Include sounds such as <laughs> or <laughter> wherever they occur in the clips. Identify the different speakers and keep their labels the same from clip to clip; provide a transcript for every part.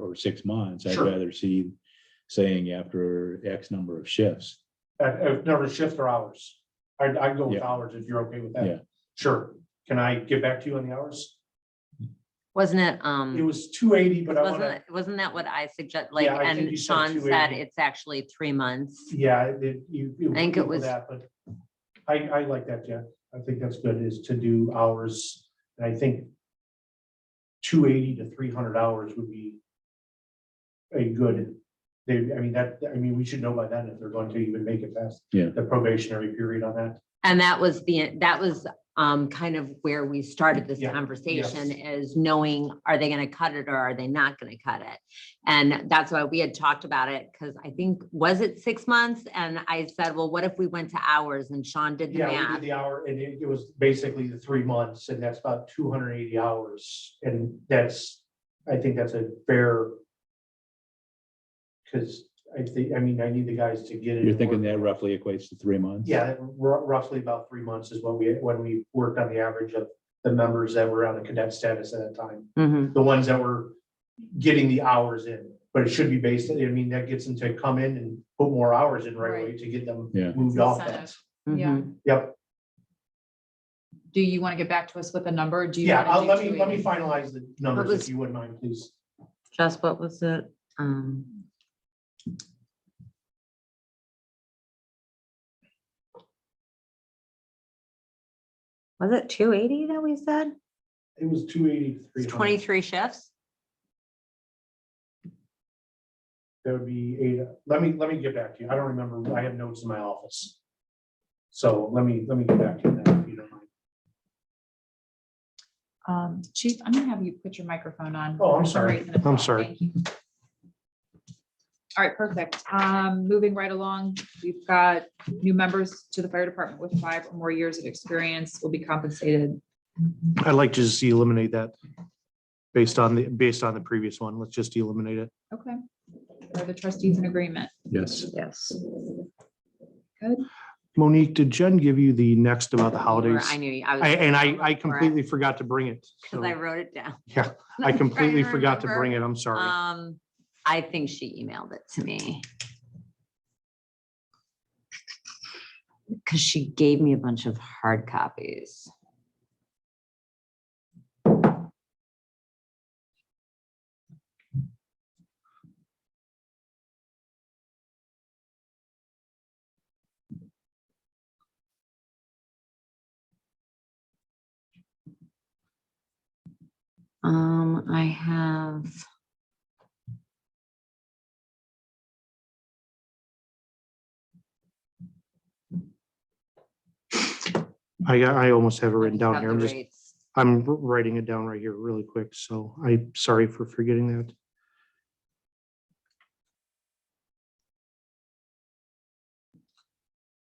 Speaker 1: for six months. I'd
Speaker 2: Sure.
Speaker 1: rather see saying after X number of shifts.
Speaker 2: At, at number of shifts or hours. I, I go with
Speaker 1: Yeah.
Speaker 2: hours if you're okay with
Speaker 1: Yeah.
Speaker 2: that. Sure. Can I get back to you on the hours?
Speaker 3: Wasn't it,
Speaker 2: It
Speaker 3: um,
Speaker 2: was two eighty, but I
Speaker 3: wasn't,
Speaker 2: wanna,
Speaker 3: it- wasn't that what I suggest, like,
Speaker 2: Yeah, I think you
Speaker 3: and
Speaker 2: said
Speaker 3: Sean said
Speaker 2: 280.
Speaker 3: it's actually three months?
Speaker 2: yeah, it, you.
Speaker 3: I think it
Speaker 2: with
Speaker 3: was-
Speaker 2: That, but I, I like that, Jeff. I think that's good is to do hours. And I think two eighty to three hundred hours would be a good, they, I mean, that, I mean, we should know by then if they're going to even make it past
Speaker 1: Yeah.
Speaker 2: the probationary period on that.
Speaker 3: And that was the, that was, um, kind of where we started this
Speaker 2: Yeah,
Speaker 3: conversation is knowing, are they gonna cut it or are they not gonna cut it? And that's why we had talked about it, because I think, was it six months? And I said, well, what if we went to hours and Sean did the
Speaker 2: Yeah, we
Speaker 3: math?
Speaker 2: did the hour and it, it was basically the three months and that's about two hundred and eighty hours. And that's, I think that's a fair. Cause I think, I mean, I need the guys to get it.
Speaker 1: You're thinking that roughly equates to three months?
Speaker 2: Yeah, ro- roughly about three months is what we, when we worked on the average of the members that were on the cadet status at that time.
Speaker 3: Mhm.
Speaker 2: The ones that were getting the hours in, but it should be based, I mean, that gets them to come in and put more hours in right away to get them
Speaker 1: Yeah.
Speaker 2: moved off that.
Speaker 4: Incentive. Yeah.
Speaker 3: Mhm.
Speaker 2: Yep.
Speaker 4: Do you want to get back to us with a number? Do you?
Speaker 2: Yeah,
Speaker 4: wanna
Speaker 2: I'll,
Speaker 4: do
Speaker 2: let me, let me
Speaker 4: 280?
Speaker 2: finalize the numbers if
Speaker 3: was-
Speaker 2: you wouldn't mind, please.
Speaker 3: Jess, what was it? Um, was it two eighty that we said?
Speaker 2: It was two eighty-three.
Speaker 3: It's Twenty-three shifts?
Speaker 2: That would be eight, let me, let me get back to you, I don't remember, I have notes in my office. So let me, let me get back to you now, if you don't mind.
Speaker 4: Um, Chief, I'm gonna have you put your microphone on.
Speaker 2: Oh, I'm
Speaker 4: For some
Speaker 2: sorry.
Speaker 4: reason it's
Speaker 2: I'm
Speaker 4: not.
Speaker 2: sorry.
Speaker 4: Thank you. All right, perfect. Um, moving right along, we've got new members to the fire department with five or more years of experience will be compensated.
Speaker 2: I'd like to just eliminate that based on the, based on the previous one, let's just eliminate it.
Speaker 4: Okay. Are the trustees in agreement?
Speaker 1: Yes.
Speaker 3: Yes.
Speaker 2: Monique, did Jen give you the next about the
Speaker 3: I knew, you- I was.
Speaker 2: forgot to bring
Speaker 3: <laughs>
Speaker 2: it.
Speaker 3: Because I wrote it down. <laughs>
Speaker 2: Yeah,
Speaker 3: I'm trying remember.
Speaker 2: it, I'm sorry.
Speaker 3: Um, I think she emailed it to me. Because she gave me a bunch of hard copies. Um, I have.
Speaker 2: I, I almost have it
Speaker 3: I
Speaker 2: written
Speaker 3: just
Speaker 2: down
Speaker 3: have
Speaker 2: here,
Speaker 3: the
Speaker 2: I'm just
Speaker 3: rates.
Speaker 2: I'm r- writing it down right here really quick, so I'm sorry for forgetting that.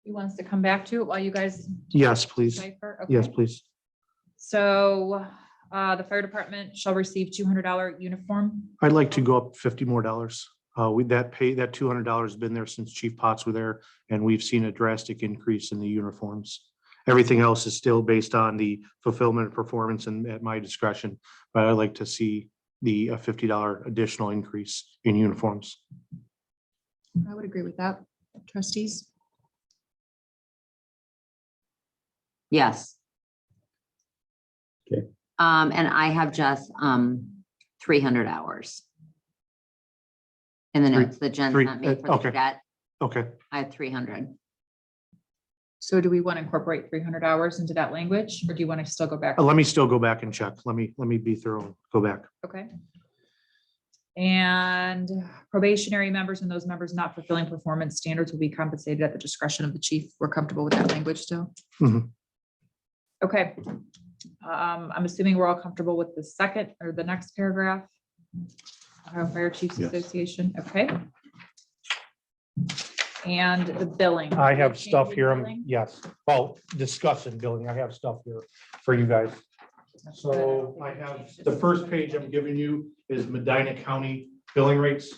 Speaker 4: He wants to come back to it while you guys
Speaker 2: Yes, please.
Speaker 4: decipher? Okay.
Speaker 2: Yes, please.
Speaker 4: So, uh, the fire department shall receive two hundred dollar uniform
Speaker 2: I'd like to go up fifty more dollars. Uh, with that pay, that two hundred dollars has been there since Chief Potts were there, and we've seen a drastic increase in the uniforms. Everything else is still based on the fulfillment of performance and at my discretion, but I'd like to see the uh, fifty dollar additional increase in uniforms.
Speaker 4: I would agree with that. Trustees?
Speaker 3: Yes.
Speaker 1: Okay.
Speaker 3: Um, and I have just, um, three hundred hours. In the
Speaker 2: Three-
Speaker 3: notes that Jen
Speaker 2: three-
Speaker 3: sent me
Speaker 2: uh,
Speaker 3: for the
Speaker 2: okay.
Speaker 3: cadet,
Speaker 2: Okay,
Speaker 3: I have three hundred.
Speaker 4: So do we want to incorporate three hundred hours into that language, or do you want to still go back?
Speaker 2: Uh, let me still go back and check. Let me, let me be thorough, go back.
Speaker 4: Okay. And probationary members and those members not fulfilling performance standards will be compensated at the discretion of the chief. We're comfortable with that language still?
Speaker 2: Mhm.
Speaker 4: Okay. Um, I'm assuming we're all comfortable with the second or the next paragraph? Ohio Fire Chiefs
Speaker 1: Yes.
Speaker 4: Association, okay? And the billing.
Speaker 2: I have stuff
Speaker 4: Changing
Speaker 2: here, um,
Speaker 4: billing?
Speaker 2: yes, well, discussion, billing, I have stuff here for you guys. So I have, the first page I'm giving you is Medina County billing rates.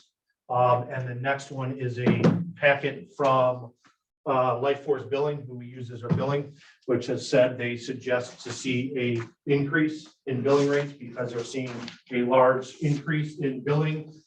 Speaker 2: Um, and the next one is a packet from, uh, Life Force Billing, who we use as our billing, which has said they suggest to see a increase in billing rates because they're seeing a large increase in billing